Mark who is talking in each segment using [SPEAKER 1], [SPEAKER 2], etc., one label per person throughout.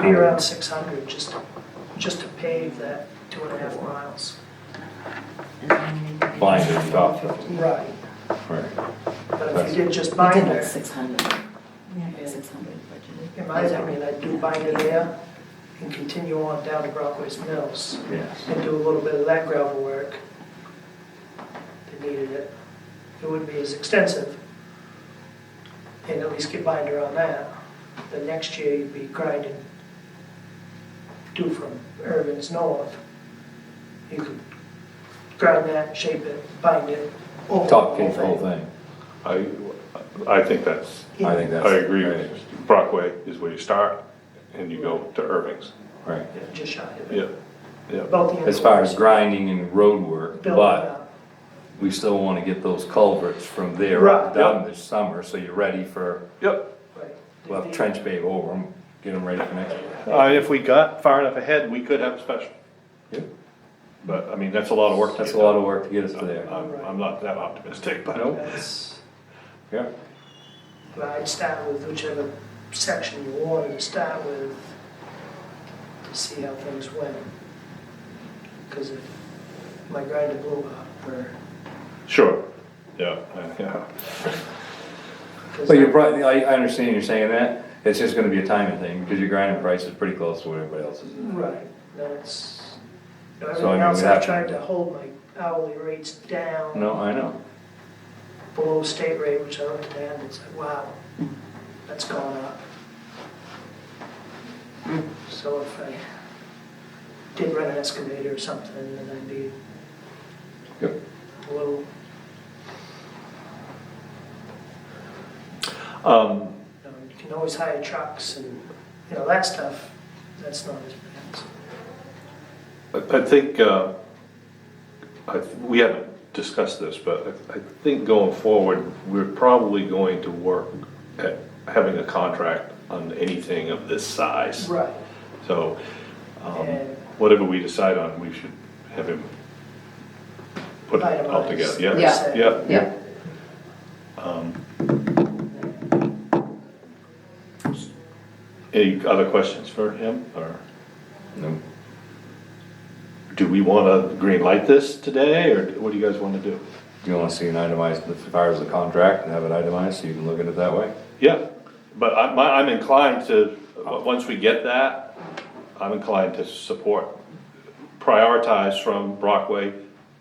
[SPEAKER 1] maybe around six hundred, just, to- just to pave that two and a half miles.
[SPEAKER 2] Blind and stuff.
[SPEAKER 1] Right.
[SPEAKER 2] Right.
[SPEAKER 1] But if you did just
[SPEAKER 3] It's in like
[SPEAKER 1] binder,
[SPEAKER 3] six hundred.
[SPEAKER 1] Yeah.
[SPEAKER 3] Six hundred budgeted.
[SPEAKER 1] in my opinion, I'd do binder there and continue on down to Brockway's Mills
[SPEAKER 2] Yes.
[SPEAKER 1] and do a little bit of that gravel work. If they needed it. It wouldn't be as extensive. And at least get binder on that. The next year you'd be grinding do from Irvin's north. You could grind that, shape it, bind it, over the
[SPEAKER 2] Top
[SPEAKER 1] whole
[SPEAKER 2] the whole
[SPEAKER 1] thing.
[SPEAKER 2] thing.
[SPEAKER 4] I, I think that's,
[SPEAKER 2] I think that's.
[SPEAKER 4] I agree
[SPEAKER 2] right,
[SPEAKER 4] with you. Brockway is where you start and you go to Irving's.
[SPEAKER 2] Right.
[SPEAKER 1] Yeah, Just shy of it.
[SPEAKER 4] Yeah, yeah.
[SPEAKER 1] Both the
[SPEAKER 2] As far as grinding and road work,
[SPEAKER 1] building
[SPEAKER 2] but
[SPEAKER 1] up.
[SPEAKER 2] we still wanna get those culverts from there
[SPEAKER 1] Right.
[SPEAKER 2] done this summer, so you're ready for,
[SPEAKER 4] Yep.
[SPEAKER 1] Right.
[SPEAKER 2] well, trench pave over them, get them ready for next year.
[SPEAKER 4] Uh, if we got far enough ahead, we could have a special.
[SPEAKER 2] Yeah.
[SPEAKER 4] But, I mean, that's a lot of work. to
[SPEAKER 2] That's a
[SPEAKER 4] get
[SPEAKER 2] lot
[SPEAKER 4] done.
[SPEAKER 2] of work to get us to there.
[SPEAKER 4] I'm, I'm not that optimistic, but.
[SPEAKER 2] Nope.
[SPEAKER 1] That's,
[SPEAKER 2] Yeah.
[SPEAKER 1] but I'd start with whichever section you wanted to start with to see how things went. Because if my grinder blew up or.
[SPEAKER 4] Sure, yeah, yeah.
[SPEAKER 1] 'cause
[SPEAKER 2] But you're
[SPEAKER 1] I-
[SPEAKER 2] probably, I, I understand you're saying that, it's just gonna be a timing thing, because your grinding price is pretty close to what everybody else is.
[SPEAKER 1] Right, that's, you know,
[SPEAKER 2] So,
[SPEAKER 1] everything
[SPEAKER 2] I mean,
[SPEAKER 1] else
[SPEAKER 2] we
[SPEAKER 1] I've
[SPEAKER 2] have-
[SPEAKER 1] tried to hold my hourly rates down
[SPEAKER 2] No, I know,
[SPEAKER 1] below state rate, which I looked at and it's like, wow, that's gone up. So if I did run an excavator or something, then I'd be
[SPEAKER 2] Yep.
[SPEAKER 1] a little,
[SPEAKER 4] Um,
[SPEAKER 1] you know, you can always hire trucks and, you know, that stuff, that's not as bad.
[SPEAKER 4] I, I think, uh, I, we haven't discussed this, but I, I think going forward, we're probably going to work at having a contract on anything of this size.
[SPEAKER 1] Right.
[SPEAKER 4] So, um,
[SPEAKER 1] And-
[SPEAKER 4] whatever we decide on, we should have him put it all together,
[SPEAKER 1] Itemize.
[SPEAKER 4] yeah, yeah.
[SPEAKER 3] Yeah,
[SPEAKER 4] Any other questions for him, or
[SPEAKER 2] no,
[SPEAKER 4] do we wanna green light this today, or what do you guys wanna do?
[SPEAKER 2] do you wanna see an itemized, as far as the contract, and have it itemized, so you can look at it that way?
[SPEAKER 4] Yeah, but I'm, I'm inclined to, once we get that, I'm inclined to support, prioritize from Brockway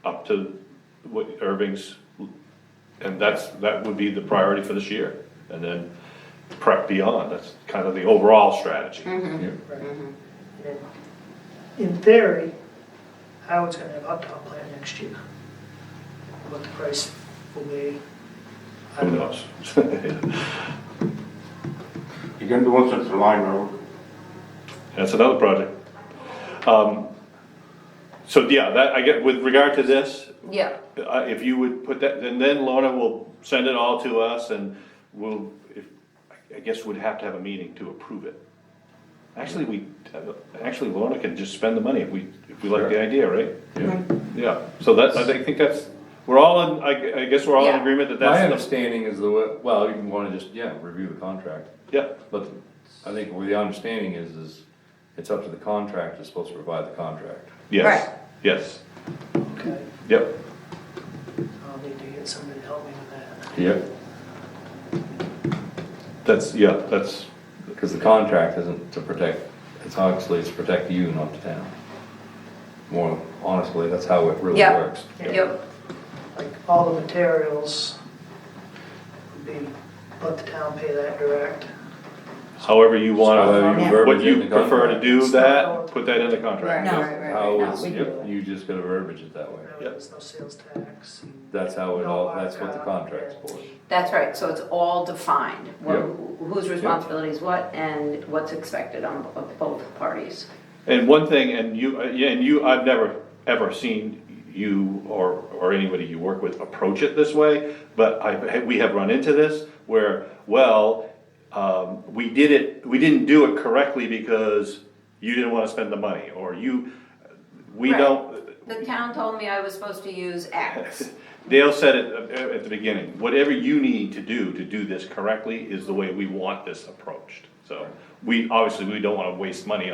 [SPEAKER 4] up to what Irving's, and that's, that would be the priority for this year. And then prep beyond, that's kind of the overall strategy.
[SPEAKER 2] Yeah.
[SPEAKER 1] Right. And In theory, Howard's gonna have hot dog plant next year. What the price will be. I
[SPEAKER 4] Who
[SPEAKER 1] don't
[SPEAKER 4] knows?
[SPEAKER 5] You're gonna do one since the line road.
[SPEAKER 4] That's another project. Um, So, yeah, that, I get, with regard to this,
[SPEAKER 3] yeah.
[SPEAKER 4] Uh, if you would put that, and then Lorna will send it all to us and we'll, if, I guess we'd have to have a meeting to approve it. Actually, we, uh, actually Lorna can just spend the money if we, if we like the
[SPEAKER 2] Sure.
[SPEAKER 4] idea, right?
[SPEAKER 2] Yeah.
[SPEAKER 4] Yeah, so that's, I think- think that's, we're all in, I, I guess we're all in
[SPEAKER 3] Yeah.
[SPEAKER 4] agreement that
[SPEAKER 2] My
[SPEAKER 4] that's, the-
[SPEAKER 2] understanding is the, wa- well, you wanna just, yeah, review the contract,
[SPEAKER 4] yeah,
[SPEAKER 2] but I think what the understanding is, is it's up to the contractor, supposed to provide the contract.
[SPEAKER 4] yes,
[SPEAKER 3] Right.
[SPEAKER 4] yes,
[SPEAKER 1] know. Okay,
[SPEAKER 4] yep.
[SPEAKER 1] I'll need to get somebody to help me with that.
[SPEAKER 2] Yep.
[SPEAKER 4] That's, yeah, that's,
[SPEAKER 2] Because the contract isn't to protect, it's honestly, it's to protect you, not the town. More honestly, that's how it really
[SPEAKER 3] Yeah.
[SPEAKER 2] works.
[SPEAKER 3] Yep,
[SPEAKER 1] Like, all the materials would be, let the town pay that direct.
[SPEAKER 4] however you
[SPEAKER 2] However
[SPEAKER 4] wanna,
[SPEAKER 2] you
[SPEAKER 4] what
[SPEAKER 2] verbiage it
[SPEAKER 4] you
[SPEAKER 2] in the
[SPEAKER 4] prefer to
[SPEAKER 2] contract.
[SPEAKER 4] do
[SPEAKER 1] It's not going
[SPEAKER 4] that,
[SPEAKER 1] to-
[SPEAKER 4] put that in the contract.
[SPEAKER 3] No,
[SPEAKER 2] Just
[SPEAKER 3] right, right,
[SPEAKER 2] How
[SPEAKER 3] right, no,
[SPEAKER 2] it's,
[SPEAKER 3] we
[SPEAKER 1] do
[SPEAKER 2] Oh, yep,
[SPEAKER 1] that.
[SPEAKER 2] you just gotta verbiage it that way.
[SPEAKER 1] Now,
[SPEAKER 4] Yeah.
[SPEAKER 1] There's no sales tax.
[SPEAKER 2] That's how it
[SPEAKER 1] no
[SPEAKER 2] all, that's what the
[SPEAKER 1] markup,
[SPEAKER 2] contract's
[SPEAKER 1] and
[SPEAKER 2] for.
[SPEAKER 3] that's right, so it's all defined, what, whose
[SPEAKER 2] Yep.
[SPEAKER 3] responsibility is what, and what's expected on bo- of both parties.
[SPEAKER 4] And one thing, and you, uh, yeah, and you, I've never, ever seen you or, or anybody you work with approach it this way, but I, we have run into this where, well, um, we did it, we didn't do it correctly because you didn't wanna spend the money, or you, we
[SPEAKER 3] Right.
[SPEAKER 4] don't,
[SPEAKER 3] The town told me I was supposed to use X.
[SPEAKER 4] Dale said it uh, at the beginning, whatever you need to do to do this correctly is the way we want this approached, so we, obviously, we don't wanna waste money